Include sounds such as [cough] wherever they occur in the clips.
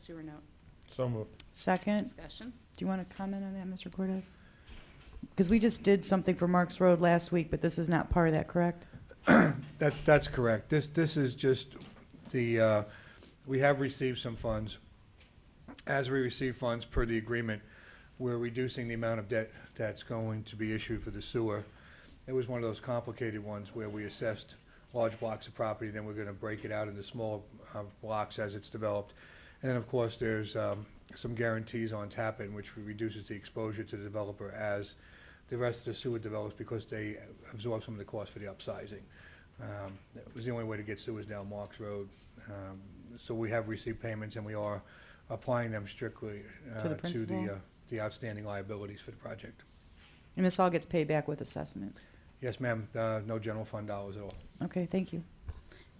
sewer note. So moved. Second, Discussion. do you want to comment on that, Mr. Cortez? Because we just did something for Marks Road last week, but this is not part of that, correct? That, that's correct. This, this is just the, uh, we have received some funds. As we receive funds per the agreement, we're reducing the amount of debt that's going to be issued for the sewer. It was one of those complicated ones where we assessed large blocks of property, then we're gonna break it out into smaller, uh, blocks as it's developed. And then, of course, there's, um, some guarantees on Tappan, which reduces the exposure to the developer as the rest of the sewer develops because they absorb some of the cost for the upsizing. Um, That was the only way to get sewers down Marks Road. Um, So we have received payments, and we are applying them strictly uh, To the to principal? the, uh, the outstanding liabilities for the project. And this all gets paid back with assessments. Yes, ma'am, uh, no general fund dollars at all. Okay, thank you.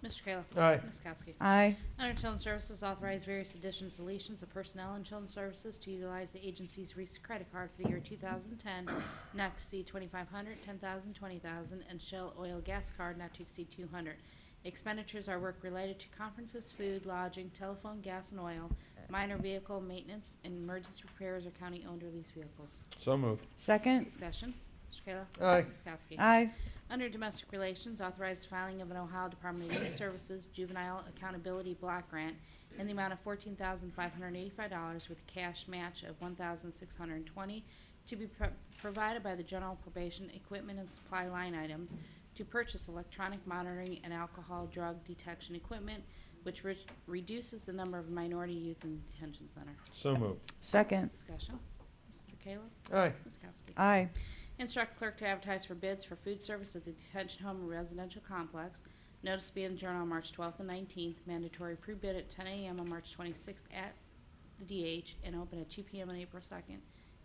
Mr. Kayla. Aye. Ms. Kowski. Aye. Under Children's Services, authorize various additions, deletions of personnel in Children's Services to utilize the agency's recent credit card for the year 2010, not to exceed 2,500, 10,000, 20,000, and Shell Oil Gas Card not to exceed 200. Expenditures are work related to conferences, food, lodging, telephone, gas, and oil, minor vehicle maintenance, and emergency repairs of county-owned or leased vehicles. So moved. Second, Discussion. Mr. Kayla. Aye. Ms. Kowski. aye. Under Domestic Relations, authorized filing of an Ohio Department of Youth Services Juvenile Accountability Block Grant in the amount of fourteen thousand five hundred and eighty-five dollars with a cash match of one thousand six hundred and twenty to be pro- provided by the general probation equipment and supply line items to purchase electronic monitoring and alcohol drug detection equipment, which re- reduces the number of minority youth in detention center. So moved. Second, Discussion. Mr. Kayla? Aye. Ms. Kowski? aye. Instruct clerk to advertise for bids for food service at the detention home and residential complex. Notice to be in the Journal on March 12th and 19th. Mandatory pre-bid at 10 a.m. on March 26th at the DH and open at 2 p.m. on April 2nd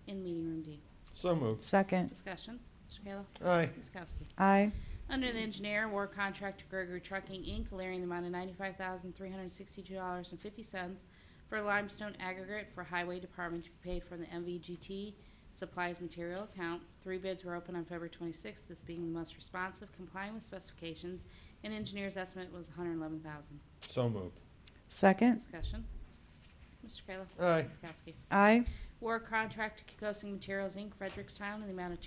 in Meeting Room D. So moved. Second, Discussion. Mr. Kayla. Aye. Ms. Kowski. aye. Under the engineer, war contract to Gregory Trucking, Inc., clearing the amount of ninety-five thousand, three hundred and sixty-two dollars and fifty cents for limestone aggregate for Highway Department to be paid from the MVGT Supplies Material Account. Three bids were open on February twenty-sixth, this being the most responsive, complying with specifications, and engineer's estimate was $111,000. So moved. Second, Discussion. Mr. Kayla. Aye. Ms. Kowski. aye. War contract to Kikosing Materials, Inc., Frederickstown, in the amount of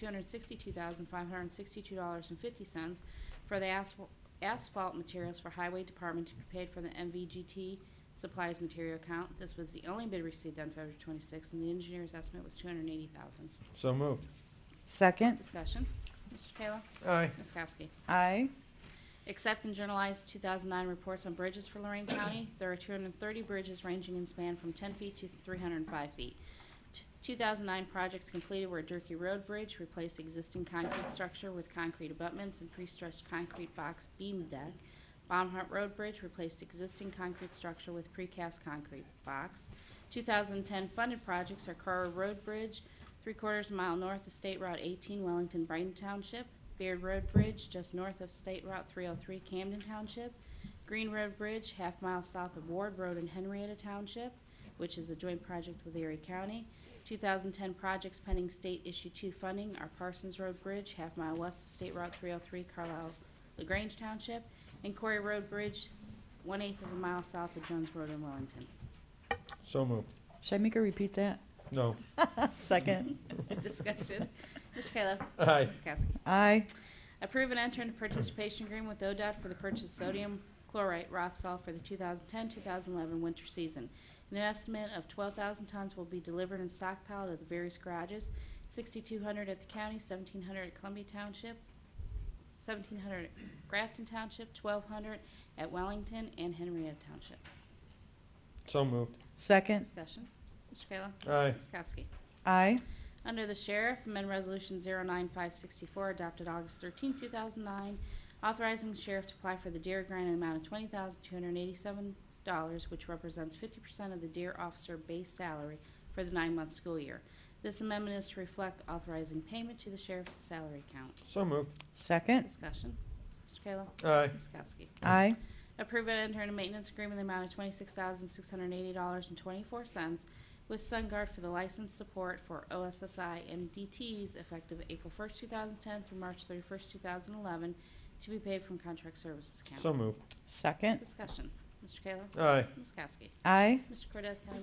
$262,562.50 for the asphal- asphalt materials for Highway Department to be paid from the MVGT Supplies Material Account. This was the only bid received on February 26th, and the engineer's estimate was $280,000. So moved. Second, Discussion. Mr. Kayla. Aye. Ms. Kowski. aye. Accept and journalize 2009 reports on bridges for Lorraine County. There are 230 bridges ranging in span from 10 feet to 305 feet. T- 2009 projects completed were Durkey Road Bridge, replaced existing concrete structure with concrete abutments and pre-stressed concrete box beam deck. Baumhart Road Bridge replaced existing concrete structure with precast concrete box. 2010 funded projects are Carr Road Bridge, three-quarters mile north of State Route 18, Wellington, Brighton Township. Beard Road Bridge, just north of State Route 303, Camden Township. Green Road Bridge, half mile south of Ward Road in Henrietta Township, which is a joint project with Erie County. 2010 projects pending state issue two funding are Parsons Road Bridge, half mile west of State Route 303, Carlisle, LaGrange Township, and Corey Road Bridge, one-eighth of a mile south of Jones Road in Wellington. [laughs] So moved. Should I make her repeat that? [laughs] No. Second, Discussion. Mr. Kayla. Aye. Ms. Kowski. aye. Approve and enter into participation agreement with ODOT for the purchase of sodium chlorate rock salt for the 2010-2011 winter season. An estimate of 12,000 tons will be delivered and stockpiled at the various garages, 6,200 at the county, 1,700 at Columbia Township, 1,700 at Grafton Township, 1,200 at Wellington, and Henrietta Township. So moved. Second, Discussion. Mr. Kayla. Aye. Ms. Kowski. aye. Under the Sheriff, amend Resolution 09564, adopted August 13, 2009, authorizing the sheriff to apply for the deer grant in the amount of $20,287, which represents 50% of the deer officer base salary for the nine-month school year. This amendment is to reflect authorizing payment to the sheriff's salary account. So moved. Second, Discussion. Mr. Kayla. Aye. Ms. Kowski. aye. Approve and enter into maintenance agreement in the amount of twenty-six thousand, six hundred and eighty dollars and twenty-four cents with SunGuard for the license support for OSSI and DTs effective April first, two thousand ten through March thirty-first, two thousand eleven, to be paid from contract services account. So moved. Second, Discussion. Mr. Kayla. Aye. Ms. Kowski. aye. Mr. Cordez, County